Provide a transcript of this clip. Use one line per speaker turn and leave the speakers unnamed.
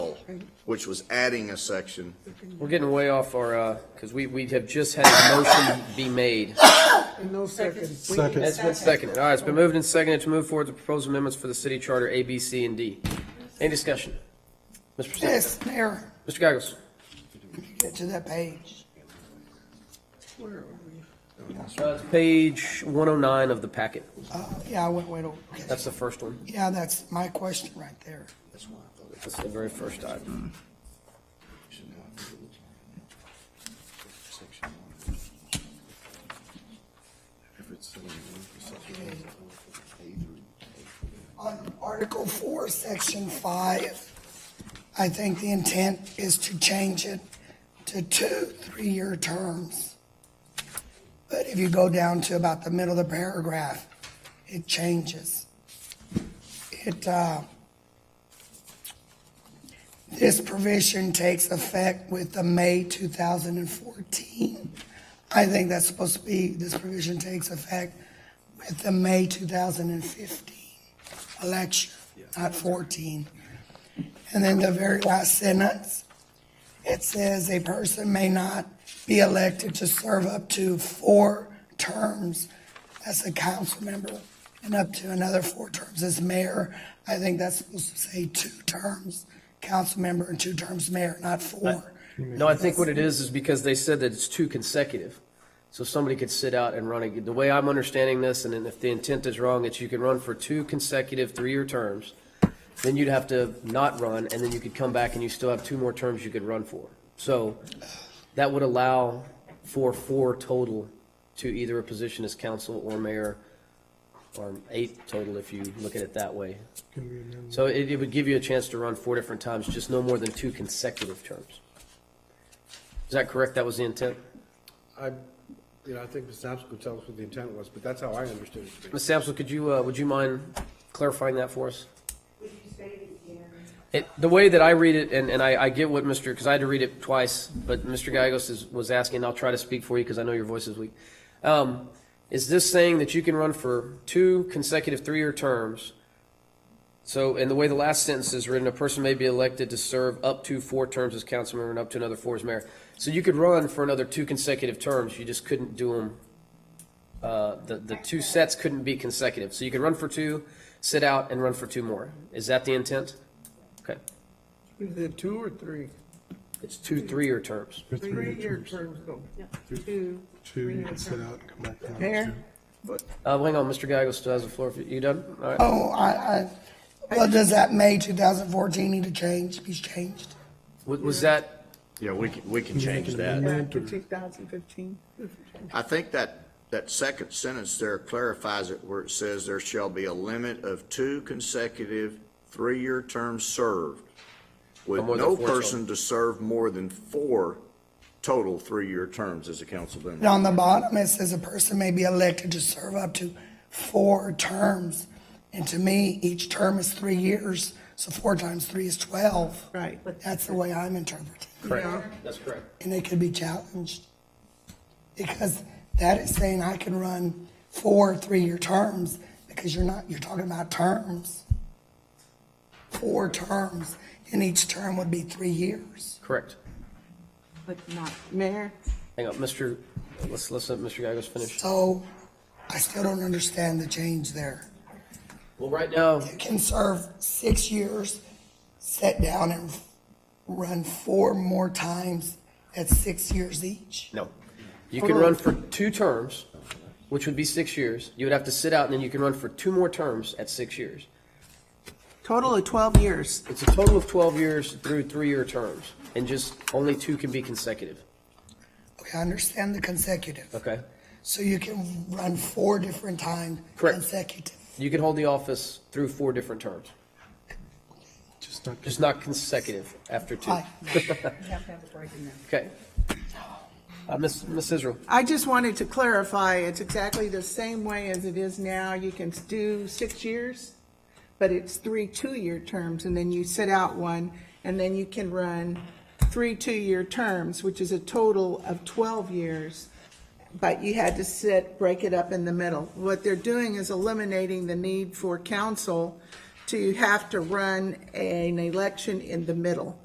which was adding a section.
We're getting way off our, uh, because we, we have just had a motion be made.
In no seconds.
Second.
It's been seconded. All right, it's been moved and seconded to move forward the proposed amendments for the city charter A, B, C, and D. Any discussion? Mr. Purcell?
Yes, Mayor,
Mr. Gagos?
get to that page.
Uh, it's Page 109 of the packet.
Uh, Yeah, I went, went, over.
That's the first one.
yeah, that's my question right there.
That's the very first item.
On Article Four, Section Five, I think the intent is to change it to two, three-year terms. But if you go down to about the middle of the paragraph, it changes. It, uh, this provision takes effect with the May two thousand and fourteen. I think that's supposed to be, this provision takes effect with the May two thousand and fifteen election, not 14. And then the very last sentence, it says, "A person may not be elected to serve up to four terms as a council member and up to another four terms as mayor." I think that's supposed to say two terms, council member and two terms mayor, not four.
No, I think what it is, is because they said that it's two consecutive. So somebody could sit out and run, ag- the way I'm understanding this, and then if the intent is wrong, it's you can run for two consecutive three-year terms, then you'd have to not run, and then you could come back and you still have two more terms you could run for. So that would allow for four total to either a position as council or mayor, or eight total if you look at it that way. So it, it would give you a chance to run four different times, just no more than two consecutive terms. Is that correct? That was the intent?
I, you know, I think Ms. Sampson could tell us what the intent was, but that's how I understood it to be.
Ms. Sampson, could you, uh, would you mind clarifying that for us?
Would you say it again?
It, the way that I read it, and, and I, I get what Mr., because I had to read it twice, but Mr. Gagos is, was asking, and I'll try to speak for you because I know your voice is weak. Um, is this saying that you can run for two consecutive three-year terms? So, and the way the last sentence is written, a person may be elected to serve up to four terms as council member and up to another four as mayor. So you could run for another two consecutive terms, you just couldn't do them uh, the, the two sets couldn't be consecutive. So you could run for two, sit out, and run for two more. Is that the intent? Okay.
Is it two or three?
It's two three-year terms. Uh,
Three-year terms though. Two.
Two, you can sit out and come back down.
Mayor,
Uh, hang on, Mr. Gagos still has the floor. You done? All right.
Oh, I, I, well, does that May 2014 need to change, be changed?
Was, was that,
Yeah, we can, we can change that.
back to 2015.
I think that, that second sentence there clarifies it where it says there shall be a limit of two consecutive three-year terms served with
No more than
no
four total.
person to serve more than four total three-year terms as a council member.
And on the bottom, it says a person may be elected to serve up to four terms. And to me, each term is three years, so four times three is 12.
Right.
That's the way I'm interpreting.
correct? That's correct.
And it could be challenged. Because that is saying I can run four three-year terms because you're not, you're talking about terms. Four terms, and each term would be three years.
Correct.
But not,
Mayor,
Hang on, Mr., let's, let's let Mr. Gagos finish.
So I still don't understand the change there.
Well, right now,
can serve six years, sit down and run four more times at six years each.
no. You can run for two terms, which would be six years. You would have to sit out, and then you can run for two more terms at six years.
total of 12 years.
It's a total of 12 years through three-year terms, and just only two can be consecutive,
Okay, I understand the consecutive.
okay?
So you can run four different times
Correct.
consecutive.
You can hold the office through four different terms,
Just not.
just not consecutive after two.
Right.
Okay. Uh, Ms. Ms. Israel,
I just wanted to clarify, it's exactly the same way as it is now. You can do six years, but it's three two-year terms, and then you sit out one, and then you can run three two-year terms, which is a total of 12 years, but you had to sit, break it up in the middle. What they're doing is eliminating the need for council to have to run an election in the middle.